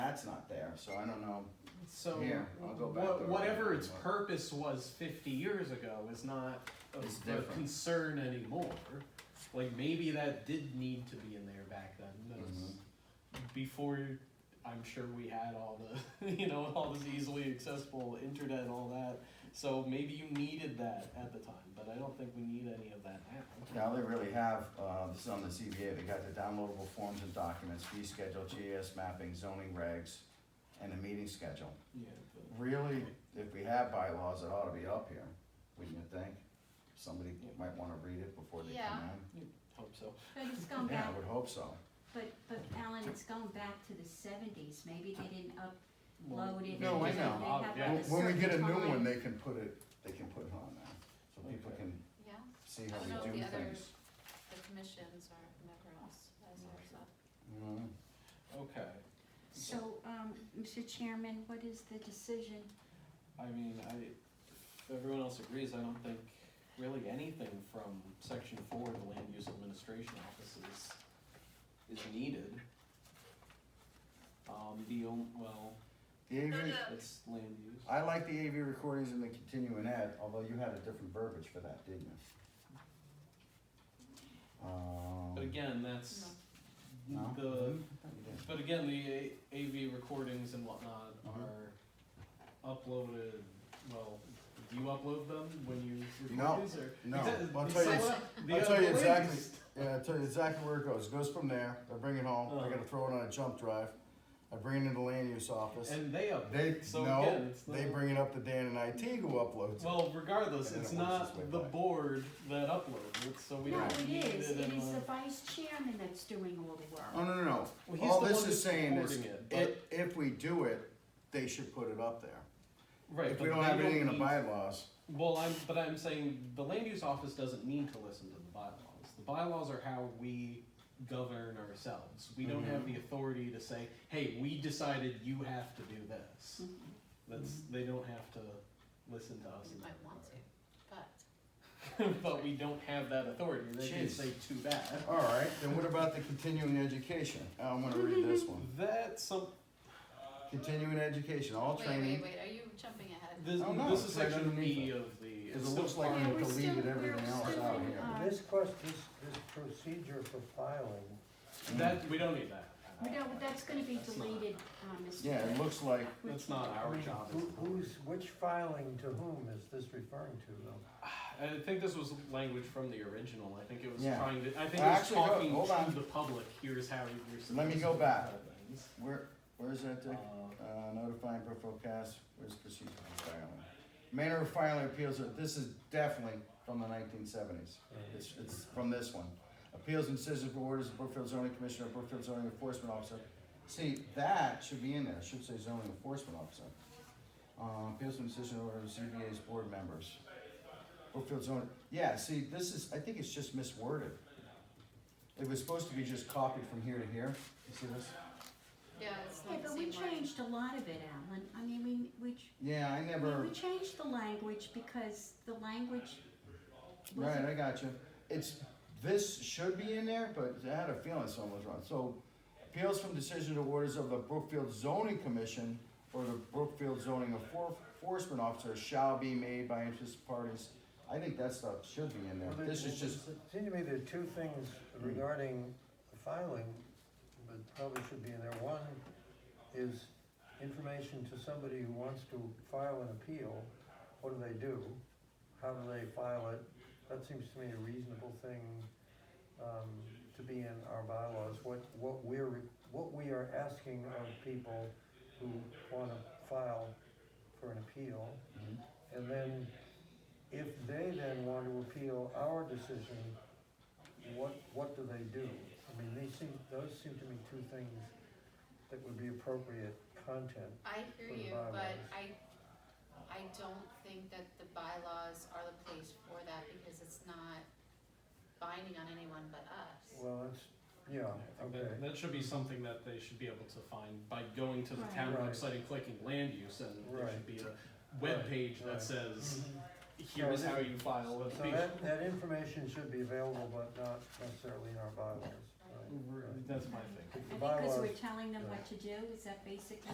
there, so I don't know. So Here, I'll go back what- there. whatever its purpose was 50 years ago is not of It's of different. concern anymore. Like maybe that did need to be in there back then. That's Mm-hmm. Before I'm sure we had all the you know all this easily accessible internet and all that. So maybe you needed that at the time, but I don't think we need any of that now. Now they really have, uh, this is on the CBA, they got the downloadable forms and documents, fee schedule, GIS mapping, zoning regs, and a meeting schedule. Yeah, but Really, if we have bylaws, it ought to be up here, wouldn't you think? Somebody might wanna read it before they come Yeah. in. hope so. But it's gone Yeah, I back, would hope so. but, but Alan, it's gone back to the seventies, maybe they didn't Well, upload it. No, I because know. they have Yeah. on a When- When we get a certain new one, time. they can put it, They can put it on there, so people Okay. can Yeah, see I how don't know we if do the other- things. the commissions or whoever else has theirs up. You Mm-hmm. know? Okay. So, um, Mr. Chairman, what is the decision? I mean, I, if everyone else agrees, I don't think really anything from section four, of the land use administration offices, is needed. Um, the on, well, The AV, it's land use. I like the AV recordings and the continuing ed, although you had a different verbiage for that, didn't you? Um, But again, that's no? Mm-hmm. the, You did. but again, the A- AV recordings and whatnot Mhm. are uploaded, well, do you upload them when you No, record these or? no. Exa- I'll tell you- it's like the I'll tell you other exactly. list. Yeah, I tell you exactly where it goes. It goes from there. I bring it home. I Uh. gotta throw it on a jump drive. I bring it into land use office. And they upload. They so again, no, it's they not- bring it up to Dan and IT who uploads. it. Well, regardless, And then it's it works its way not the back. board that uploads it, so we uh, No, don't it need is, it. in it is a- the vice chairman that's doing all the Oh Um, work. no no no. Well, he's All the this one is that's saying is recording it, if, if we do it, they should put it up there. right? If but we don't they have anything in the need- bylaws, Well, I'm, but I'm saying the land use office doesn't need to listen to the bylaws. The bylaws are how we govern ourselves. We don't have Mm-hmm. the authority to say, "Hey, we decided you have to do this." Mhm. That's they don't have to listen to us. You in that might want to, but regard. but we don't have that authority. They can Jeez. say too bad. all right. Then what about the continuing education? I'm gonna read this one. That's some. Continuing education, all wait, wait, training. wait, are you jumping ahead? This, Oh, no, this is it's right section underneath B it. of the. Because it's it still looks like part we Yeah, of we're still- deleted we're everything else still out in, here. uh, This question, this, this procedure for filing, That, we don't need that. we don't- but that's gonna be That's not- deleted, uh, Mr. Yeah, it looks like That's not I our mean, job. as who- a board. who's, which filing to whom is this referring to though? I think this was language from the original. I think it was Yeah. trying to, I think it was Actually, hold- talking hold to on. the public, here's how you're supposed to. Let me go back. do things. where where's that Uh, Dick? Uh, notifying peripheral cast, where's procedure for filing? Manner of filing appeals, uh, this is definitely from the nineteen seventies. It's, it's from this one. Appeals and decisions for orders of Brookfield zoning commissioner, Brookfield zoning enforcement officer. See, that should be in there, It should say zoning enforcement officer. Uh, appeals and decision orders, CBA's board members. Brookfield zoning, yeah, see, this is, I think it's just misworded. It was supposed to be just copied from here to here, you see this? Yeah, it's Yeah, not the but we same word. changed a lot of it, Alan, I mean, we, we, ch- Yeah, I never. we changed the language because the language Right, wasn't I got you. It's, this should be in there, but I had a feeling something was wrong. So appeals from decision to orders of the Brookfield zoning commission or the Brookfield zoning Enfor- enforcement officer shall be made by interested parties. I think that stuff should be in there. Well, there- This is just, Hmm. It seemed to me there are two things regarding filing, but probably should be in there. One is information to somebody who wants to file an appeal, what do they do? How do they file it? That seems to me a reasonable thing, um, to be in our bylaws, what, what we're, what we are asking of people who wanna file for an appeal. Mhm. And then, if they then want to appeal our decision, what, what do they do? I mean, these seem, those seem to me two things that would be appropriate content. I hear For the you, but bylaws. I, I don't think that the bylaws are the place for that because it's not binding on anyone but us. Well, it's, yeah, I think okay. that, that should be something that they should be able to find by going to the Right. town Right. website and clicking land use, and there should Right. be a webpage Right. that says, Mm-hmm. here's So how that- you file So an appeal. that, that information should be available, but not necessarily in our bylaws, right? That's my thing. I think because we're telling them what to do, is that basically